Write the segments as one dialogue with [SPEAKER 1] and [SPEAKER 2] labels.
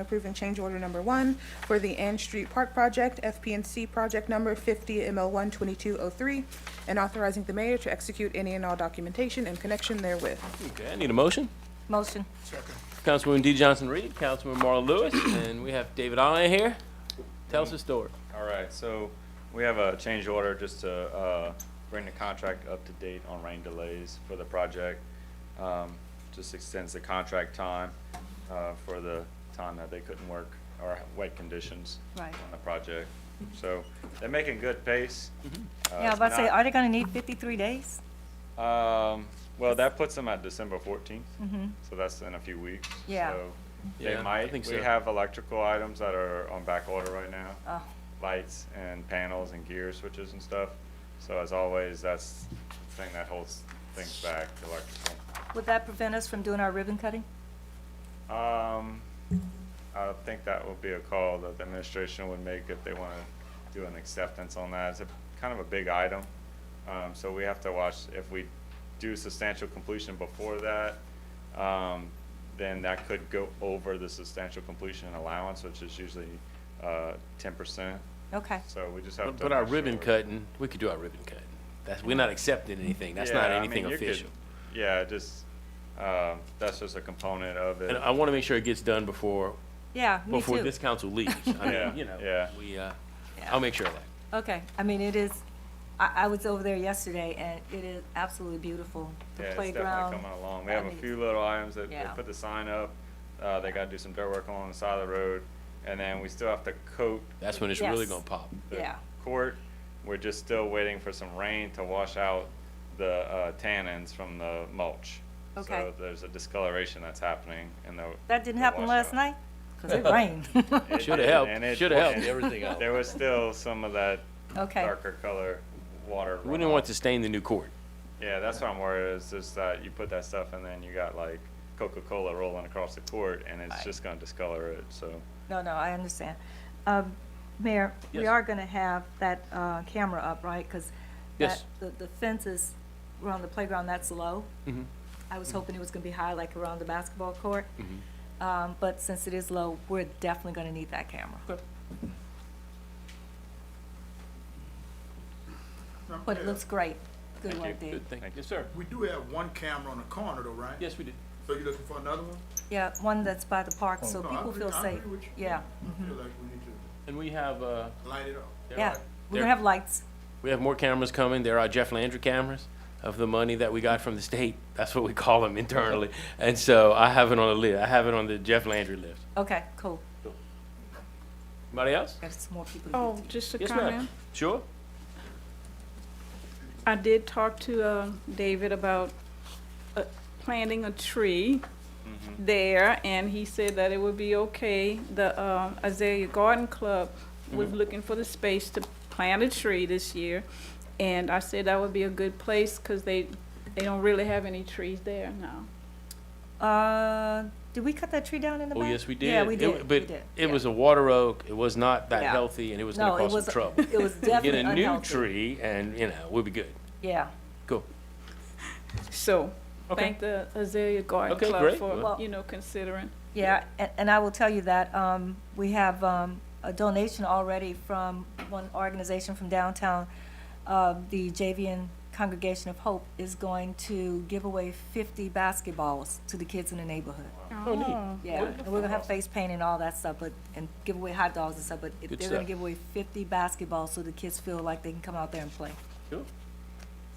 [SPEAKER 1] Approving change order number one for the Ann Street Park Project, FPNC project number fifty ML one twenty-two oh three, and authorizing the mayor to execute any and all documentation in connection therewith.
[SPEAKER 2] Okay, I need a motion.
[SPEAKER 3] Motion.
[SPEAKER 2] Councilwoman D. Johnson Reed, Councilman Marla Lewis, and we have David Allen here. Tell us the story.
[SPEAKER 4] All right, so we have a change order just to uh, bring the contract up to date on rain delays for the project. Um, Just extends the contract time uh, for the time that they couldn't work or wet conditions
[SPEAKER 3] Right.
[SPEAKER 4] on the project. So they're making good pace. Uh,
[SPEAKER 3] Mm-hmm. Yeah, I was
[SPEAKER 4] it's
[SPEAKER 3] about to say,
[SPEAKER 4] not-
[SPEAKER 3] are they gonna need fifty-three days?
[SPEAKER 4] Um, well, that puts them at December fourteenth, so that's in a few weeks.
[SPEAKER 3] Mm-hmm. Yeah.
[SPEAKER 4] So They
[SPEAKER 2] Yeah, I
[SPEAKER 4] might,
[SPEAKER 2] think
[SPEAKER 4] we
[SPEAKER 2] so.
[SPEAKER 4] have electrical items that are on back order right now.
[SPEAKER 3] Oh.
[SPEAKER 4] Lights and panels and gear switches and stuff. So as always, that's the thing that holds things back, the electrical.
[SPEAKER 3] Would that prevent us from doing our ribbon cutting?
[SPEAKER 4] Um, I think that would be a call that the administration would make if they want to do an acceptance on that. It's a, kind of a big item. Um, so we have to watch, if we do substantial completion before that, um, then that could go over the substantial completion allowance, which is usually, uh, ten percent.
[SPEAKER 3] Okay,
[SPEAKER 4] So we just have to.
[SPEAKER 2] But our
[SPEAKER 4] make sure
[SPEAKER 2] ribbon
[SPEAKER 4] we're-
[SPEAKER 2] cutting, we could do our ribbon cutting. That's, we're not accepting anything. That's
[SPEAKER 4] Yeah,
[SPEAKER 2] not
[SPEAKER 4] I mean,
[SPEAKER 2] anything
[SPEAKER 4] you could-
[SPEAKER 2] official.
[SPEAKER 4] Yeah, just, um, that's just a component of it.
[SPEAKER 2] And uh, I want to make sure it gets done before,
[SPEAKER 3] yeah, me
[SPEAKER 2] before
[SPEAKER 3] too.
[SPEAKER 2] this council leaves. I
[SPEAKER 4] Yeah,
[SPEAKER 2] mean, you know,
[SPEAKER 4] yeah.
[SPEAKER 2] we, uh,
[SPEAKER 3] Yeah.
[SPEAKER 2] I'll make sure of that.
[SPEAKER 3] Okay, I mean, it is, I, I was over there yesterday and it is absolutely beautiful. The
[SPEAKER 4] Yeah, it's
[SPEAKER 3] playground.
[SPEAKER 4] definitely coming along. We
[SPEAKER 3] I
[SPEAKER 4] have a
[SPEAKER 3] mean,
[SPEAKER 4] few little items that they
[SPEAKER 3] Yeah.
[SPEAKER 4] put the sign up. Uh, they gotta do some dirt work along the side of the road. And then we still have to coat
[SPEAKER 2] That's when it's really
[SPEAKER 3] Yes.
[SPEAKER 2] going to pop.
[SPEAKER 4] the
[SPEAKER 3] Yeah,
[SPEAKER 4] court. We're just still waiting for some rain to wash out the, uh, tannins from the mulch.
[SPEAKER 3] Okay.
[SPEAKER 4] So there's a discoloration that's happening in the.
[SPEAKER 3] that didn't
[SPEAKER 4] the
[SPEAKER 3] happen last
[SPEAKER 4] washout.
[SPEAKER 3] night, cause it rained.
[SPEAKER 4] It
[SPEAKER 2] Shoulda
[SPEAKER 4] did,
[SPEAKER 2] helped.
[SPEAKER 4] and it-
[SPEAKER 2] Shoulda helped.
[SPEAKER 4] and
[SPEAKER 5] Everything else.
[SPEAKER 4] There was still some of that
[SPEAKER 3] Okay,
[SPEAKER 4] darker color water.
[SPEAKER 2] We didn't want
[SPEAKER 4] runoff.
[SPEAKER 2] to stain the new court.
[SPEAKER 4] Yeah, that's what I'm worried is just that you put that stuff and then you got like Coca-Cola rolling across the court and it's
[SPEAKER 3] Right.
[SPEAKER 4] just gonna discolor it, so.
[SPEAKER 3] no, no, I understand. Um, Mayor, we
[SPEAKER 2] Yes.
[SPEAKER 3] are gonna have that, uh, camera up, right? Cause
[SPEAKER 2] Yes.
[SPEAKER 3] that, the, the fences around the playground, that's low.
[SPEAKER 2] Mm-hmm.
[SPEAKER 3] I was hoping it was gonna be high, like around the basketball court.
[SPEAKER 2] Mm-hmm.
[SPEAKER 3] Um, but since it is low, we're definitely gonna need that camera. But it looks great. Good
[SPEAKER 4] Thank
[SPEAKER 3] work,
[SPEAKER 4] you.
[SPEAKER 3] Dave.
[SPEAKER 2] Good thing.
[SPEAKER 4] Thank you.
[SPEAKER 2] Yes, sir.
[SPEAKER 5] We do have one camera on the corner though, right?
[SPEAKER 2] Yes, we did.
[SPEAKER 5] So you looking for another one?
[SPEAKER 3] Yeah, one that's by the park, so
[SPEAKER 5] No, I
[SPEAKER 3] people
[SPEAKER 5] agree-
[SPEAKER 3] feel
[SPEAKER 5] I
[SPEAKER 3] safe.
[SPEAKER 5] Oh, agree with you.
[SPEAKER 3] Yeah, Mm-hmm.
[SPEAKER 5] I feel like we need to
[SPEAKER 2] And we have, uh,
[SPEAKER 5] light it up.
[SPEAKER 2] there are-
[SPEAKER 3] yeah. We're
[SPEAKER 2] there-
[SPEAKER 3] gonna have lights.
[SPEAKER 2] We have more cameras coming. There are Jeff Landry cameras of the money that we got from the state. That's what we call them internally. And so I have it on the list. I have it on the Jeff Landry list.
[SPEAKER 3] Okay, cool.
[SPEAKER 2] Anybody else?
[SPEAKER 3] There's some more people. to
[SPEAKER 6] Oh,
[SPEAKER 3] get
[SPEAKER 6] just a
[SPEAKER 2] Yes, ma'am.
[SPEAKER 6] comment.
[SPEAKER 2] Sure?
[SPEAKER 6] I did talk to uh, David about uh, planting a tree
[SPEAKER 2] Mm-hmm.
[SPEAKER 6] there, and he said that it would be okay. The uh, Azalea Garden Club was
[SPEAKER 2] Mm-hmm.
[SPEAKER 6] looking for the space to plant a tree this year, and I said that would be a good place because they, they don't really have any trees there now.
[SPEAKER 3] to. Uh, did we cut that tree down in the
[SPEAKER 2] Oh,
[SPEAKER 3] back?
[SPEAKER 2] yes, we did.
[SPEAKER 3] Yeah, we
[SPEAKER 2] It-
[SPEAKER 3] did. We
[SPEAKER 2] But
[SPEAKER 3] did.
[SPEAKER 2] it
[SPEAKER 3] Yeah.
[SPEAKER 2] was a water oak. It was not that
[SPEAKER 3] Yeah.
[SPEAKER 2] healthy and it was
[SPEAKER 3] No,
[SPEAKER 2] gonna
[SPEAKER 3] it
[SPEAKER 2] cause
[SPEAKER 3] was,
[SPEAKER 2] some trouble.
[SPEAKER 3] it was
[SPEAKER 2] Get
[SPEAKER 3] definitely
[SPEAKER 2] a new
[SPEAKER 3] unhealthy.
[SPEAKER 2] tree and, you know, we'll be good.
[SPEAKER 3] Yeah.
[SPEAKER 2] Cool.
[SPEAKER 6] So,
[SPEAKER 2] Okay.
[SPEAKER 6] thank the Azalea Garden
[SPEAKER 2] Okay,
[SPEAKER 6] Club
[SPEAKER 2] great.
[SPEAKER 6] for,
[SPEAKER 3] Well-
[SPEAKER 6] you know, considering.
[SPEAKER 3] Yeah, and, and I will tell you that, um, we have, um, a donation already from one organization from downtown. Uh, the Javian Congregation of Hope is going to give away fifty basketballs to the kids in the neighborhood.
[SPEAKER 2] Oh, neat.
[SPEAKER 3] Yeah, and we're gonna have face paint and all that stuff, but, and give away hot dogs and stuff, but if
[SPEAKER 2] Good
[SPEAKER 3] they're gonna
[SPEAKER 2] stuff.
[SPEAKER 3] give away fifty basketballs so the kids feel like they can come out there and play,
[SPEAKER 2] Cool.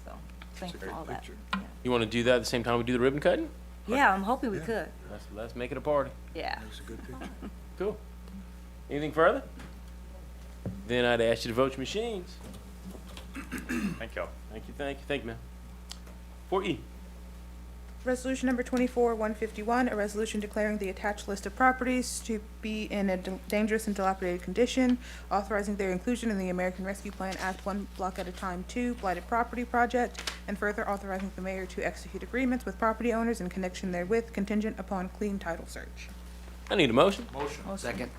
[SPEAKER 3] so, thank you for
[SPEAKER 5] great
[SPEAKER 3] all that.
[SPEAKER 5] picture.
[SPEAKER 2] You wanna do that at the same time we do the ribbon cutting?
[SPEAKER 3] Yeah, I'm hoping we could,
[SPEAKER 2] Let's, let's make it a party.
[SPEAKER 3] yeah.
[SPEAKER 5] That's a good picture.
[SPEAKER 2] Cool. Anything further? Then I'd ask you to vote your machines.
[SPEAKER 4] Thank y'all.
[SPEAKER 2] Thank you, thank you, thank you, ma'am. Four E.
[SPEAKER 1] Resolution number twenty-four, one fifty-one, a resolution declaring the attached list of properties to be in a d- dangerous and dilapidated condition, authorizing their inclusion in the American Rescue Plan Act One Block at a Time Two Blighted Property Project, and further authorizing the mayor to execute agreements with property owners in connection therewith contingent upon clean title search.
[SPEAKER 2] I need a motion.
[SPEAKER 5] Motion. Second.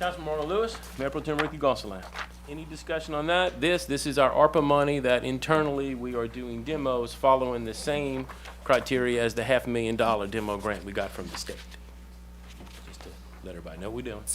[SPEAKER 2] Councilman Marlon Lewis, Mayor Pro Tem Ricky Gonsalas. Any discussion on that? This, this is our ARPA money that internally we are doing demos following the same criteria as the half million dollar demo grant we got from the state. Just to Let everybody know we doing.